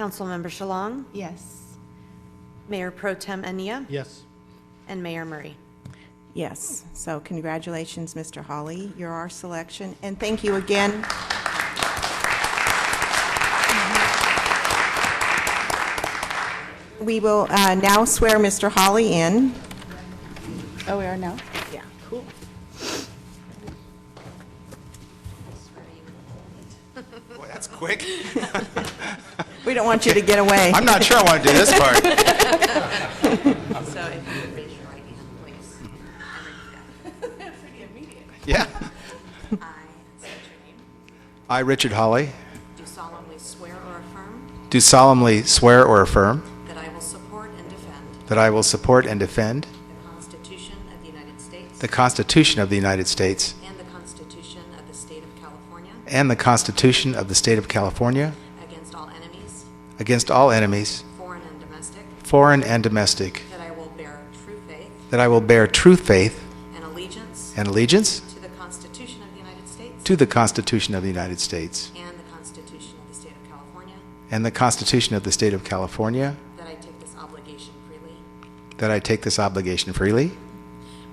Councilmember Shalong, Yes. Mayor Pro Tem Ania, Yes. and Mayor Murray. Yes. So congratulations, Mr. Hawley. You're our selection, and thank you again. We will uh, now swear Mr. Hawley in. Oh, we are now? Yeah. Boy, that's quick. We don't want you to get away. I'm not sure I want to do this part. So if you raise your right hand, please. Pretty immediate. Mm. Yeah. I state your name. I, Richard Hawley, Do solemnly swear or affirm do solemnly swear or affirm that I will support and defend that I will support and defend the Constitution of the United States the Constitution of the United States and the Constitution of the State of California and the Constitution of the State of California against all enemies, against all enemies, foreign and domestic, foreign and domestic, that I will bear true faith that I will bear true faith and allegiance and allegiance to the Constitution of the United States to the Constitution of the United States and the Constitution of the State of California, and the Constitution of the State of California, that I take this obligation freely that I take this obligation freely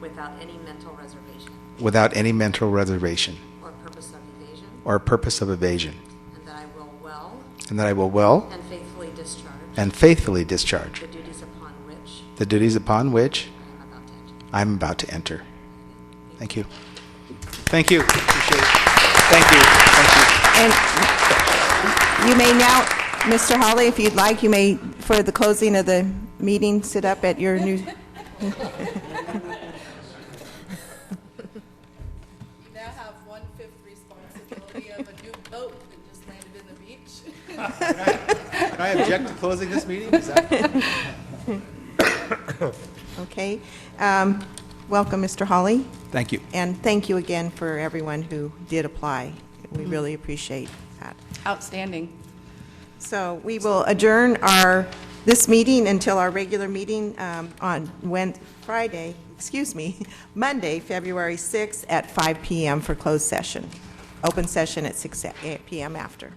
without any mental reservation without any mental reservation or purpose of evasion, or purpose of evasion, and that I will well and that I will well and faithfully discharge and faithfully discharge the duties upon which the duties upon which I am about to I'm enter. about to enter. Thank you. Thank you. Appreciate it. Thank you. Thank you. And you may now, Mr. Hawley, if you'd like, you may, for the closing of the meeting, sit up at your new... You now have one-fifth responsibility of a new boat that just landed in the beach. Can I object to closing this meeting? Is that- Okay. Um, Welcome, Mr. Hawley, Thank you. and thank you again for everyone who did apply. We really appreciate that. Outstanding. So we will adjourn our, this meeting until our regular meeting um, on Wed, Friday, excuse me, Monday, February 6th at 5 PM for closed session. Open session at 6 a- PM after.